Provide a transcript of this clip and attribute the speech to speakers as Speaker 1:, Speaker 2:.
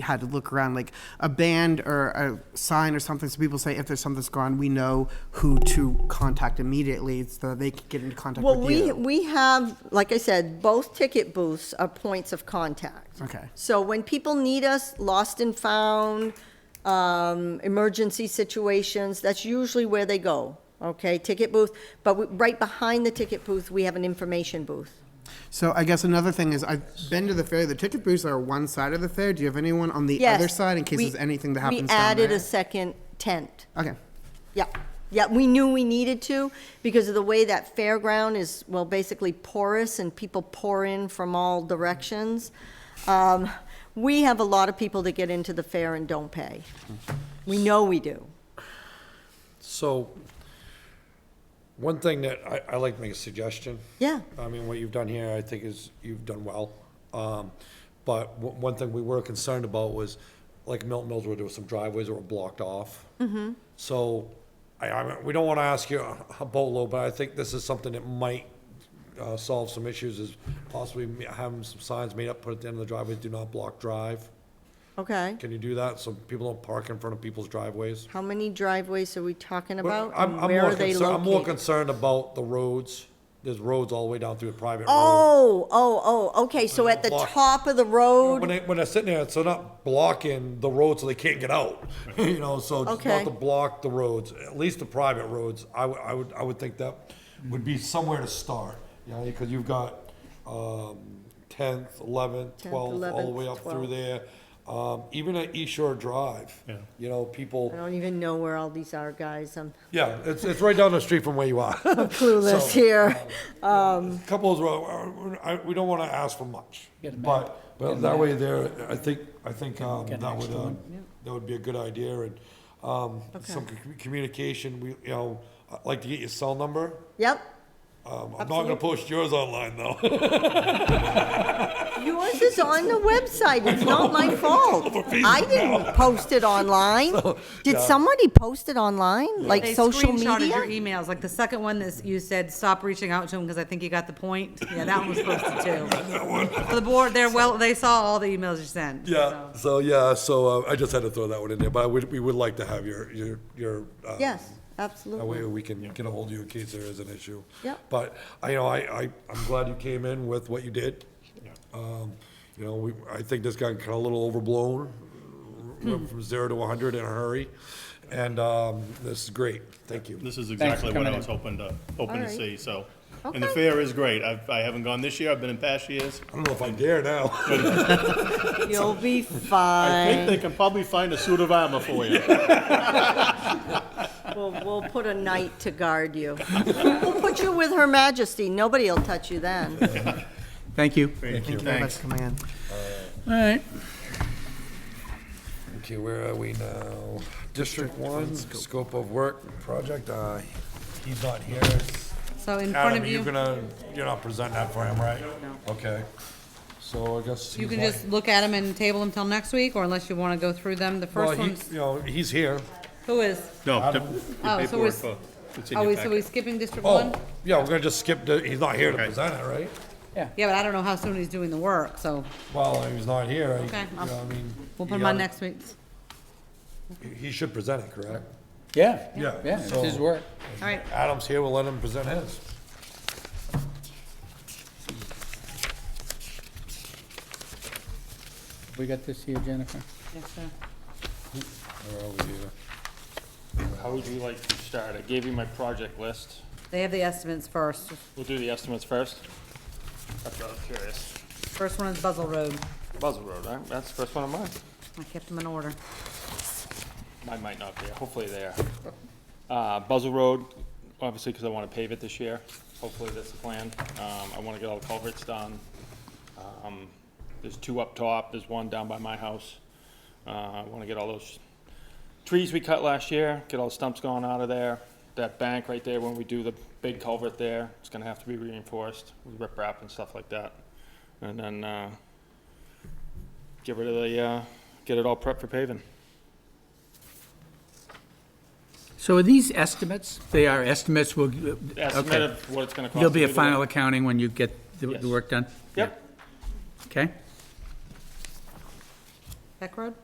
Speaker 1: had to look around like a band or a sign or something so people say if there's something that's gone we know who to contact immediately so that they can get into contact
Speaker 2: Well,
Speaker 1: with
Speaker 2: we,
Speaker 1: you.
Speaker 2: we have, like I said, both ticket booths are points of contact.
Speaker 1: Okay.
Speaker 2: So when people need us, lost and found, um, emergency situations, that's usually where they go, okay? Ticket booth, but we- right behind the ticket booth, we have an information booth.
Speaker 1: So I guess another thing is I've been to the fair. The ticket booths are one side of the fair. Do you have anyone on the
Speaker 2: Yes,
Speaker 1: other side in case
Speaker 2: we-
Speaker 1: there's anything that happens?
Speaker 2: We
Speaker 1: down
Speaker 2: added
Speaker 1: there?
Speaker 2: a second tent.
Speaker 1: Okay.
Speaker 2: Yeah, yeah, we knew we needed to because of the way that fairground is, well, basically porous and people pour in from all directions. Um, We have a lot of people that get into the fair and don't pay. We know we do.
Speaker 3: So, one thing that I, I like to make a suggestion.
Speaker 2: Yeah.
Speaker 3: I mean, what you've done here, I think is, you've done well. Um, but one, one thing we were concerned about was, like Milton Mills, where there were some driveways that were blocked off. Mm-hmm. So, I, I, mean, we don't wanna ask you a boatload, but I think this is something that might, uh, solve some issues, is possibly ma- having some signs made up, put at the end of the driveway, do not block drive.
Speaker 2: Okay.
Speaker 3: Can you do that, so people don't park in front of people's driveways?
Speaker 2: How many driveways are we talking
Speaker 3: Well,
Speaker 2: about?
Speaker 3: I'm-
Speaker 2: and
Speaker 3: I'm
Speaker 2: Where
Speaker 3: more
Speaker 2: are they
Speaker 3: concerned- I'm more
Speaker 2: located?
Speaker 3: concerned about the roads. There's roads all the way down through the private road.
Speaker 2: Oh, oh, oh, okay, so at the
Speaker 3: Block.
Speaker 2: top of the
Speaker 3: When
Speaker 2: road,
Speaker 3: they, when they're sitting there, so not blocking the road so they can't get out, you know, so just
Speaker 2: Okay.
Speaker 3: not to block the roads, at least the private roads. I would, I would, I would think that would be somewhere to start, you know, because you've got, um, tenth, eleventh,
Speaker 2: 10th,
Speaker 3: twelfth, all the
Speaker 2: 11th,
Speaker 3: way up through
Speaker 2: 12th.
Speaker 3: there. Um, even at East Shore Drive, you know,
Speaker 2: I
Speaker 3: people,
Speaker 2: don't even know where all these are, guys, I'm
Speaker 3: yeah, it's, it's right down the street from where you are.
Speaker 2: clueless here.
Speaker 3: Couples, we don't want to ask for much, but, but that way there, I think, I think um, that would, uh, that would be a good idea, and um, some commu- communication, we, you know, I'd like to get your cell number.
Speaker 2: Yep,
Speaker 3: Um, I'm not going to post yours online, though,
Speaker 2: Yours is on the website. It's not my fault. I didn't post it online. Did somebody post it online? Like
Speaker 4: They
Speaker 2: social
Speaker 4: screenshotted Your
Speaker 2: media?
Speaker 4: emails, like the second one that you said, stop reaching out to them because I think you got the point. Yeah, that one was posted too. For the board, they're well, they saw all the emails you sent.
Speaker 3: yeah, so, yeah, so uh, I just had to throw that one in there, but I would, we would like to have your, your, your. uh,
Speaker 2: Yes,
Speaker 3: That way
Speaker 5: Oh,
Speaker 2: absolutely.
Speaker 4: Mm-hmm.
Speaker 3: we can get ahold of you in case there is an issue.
Speaker 2: Yep.
Speaker 3: But, I, you know, I, I, I'm glad you came in with what you did. Um, you know, we, I think this got kinda a little overblown,
Speaker 4: Hmm.
Speaker 3: went from zero to hundred in a hurry, and, um, this is great, thank you.
Speaker 5: This is
Speaker 6: for
Speaker 5: exactly what
Speaker 6: coming
Speaker 5: I
Speaker 6: in.
Speaker 5: was hoping to, hoping to
Speaker 2: Alright.
Speaker 5: see, so. And the
Speaker 2: Okay.
Speaker 5: fair is great. I've, I haven't gone this year. I've been in past years.
Speaker 3: I don't know if I dare now.
Speaker 2: You'll be
Speaker 5: I think
Speaker 2: fine.
Speaker 5: they can probably find a suit of armor for you.
Speaker 2: We'll, we'll put a knight to guard you. We'll put you with Her Majesty. Nobody will touch you then.
Speaker 6: Thank you.
Speaker 1: Thank you very much, Command.
Speaker 6: All right.
Speaker 3: Okay, where are we now? District one, scope of work, project, uh, he's not here.
Speaker 4: So in front
Speaker 3: Adam,
Speaker 4: of
Speaker 3: you're
Speaker 4: you,
Speaker 3: gonna, you're not presenting that for him, right? Okay, so I guess.
Speaker 4: you
Speaker 3: he's
Speaker 4: can
Speaker 3: not
Speaker 4: just look at them and table them till next week, or unless you want to go through them. The
Speaker 3: Well,
Speaker 4: first
Speaker 3: he,
Speaker 4: one's,
Speaker 3: you know, he's here.
Speaker 4: who is?
Speaker 5: No, the-
Speaker 4: Oh,
Speaker 5: the
Speaker 4: so we're-
Speaker 5: paperwork for, it's in
Speaker 4: Are
Speaker 5: your
Speaker 4: we, so we
Speaker 5: packet.
Speaker 4: skipping District
Speaker 3: Oh,
Speaker 4: One?
Speaker 3: yeah, we're gonna just skip, the- he's not here to
Speaker 5: Okay.
Speaker 3: present it, right?
Speaker 4: Yeah, but I don't know how soon he's doing the work, so
Speaker 3: Well, he's not here, I- you
Speaker 4: Okay, I'll-
Speaker 3: know, I mean.
Speaker 4: we'll
Speaker 3: you
Speaker 4: put him on
Speaker 3: gotta-
Speaker 4: next week's.
Speaker 3: He should present it, correct?
Speaker 6: Yeah.
Speaker 3: Yeah.
Speaker 6: Yeah, it's
Speaker 3: So-
Speaker 6: his work.
Speaker 4: All right.
Speaker 3: Adam's here, we'll let him present his.
Speaker 6: We got this here, Jennifer.
Speaker 4: Yes, sir.
Speaker 3: Where are we here?
Speaker 7: How would you like to start? I gave you my project list.
Speaker 4: They have the estimates first.
Speaker 7: We'll do the estimates first. That's what I was curious.
Speaker 4: First one is Buzzell Road.
Speaker 7: Buzzell Road, right? That's the first one of mine.
Speaker 4: I kept them in order.
Speaker 7: Mine might not be, hopefully they are. Uh, Buzzell Road, obviously, because I want to pave it this year. Hopefully, that's the plan. Um, I want to get all the culverts done. Um, There's two up top, there's one down by my house. Uh, I want to get all those trees we cut last year, get all the stumps gone out of there. That bank right there, when we do the big culvert there, it's gonna have to be reinforced with riprap and stuff like that. And then, uh, get rid of the, uh, get it all prepped for paving.
Speaker 6: So are these estimates? They are estimates, will,
Speaker 7: Estimate
Speaker 6: okay.
Speaker 7: of what it's gonna cost.
Speaker 6: There'll
Speaker 7: to
Speaker 6: be a
Speaker 7: do the
Speaker 6: final
Speaker 7: work.
Speaker 6: accounting when you get the,
Speaker 7: Yes.
Speaker 6: the work done?
Speaker 7: Yep,
Speaker 6: Okay?
Speaker 4: Beck Road?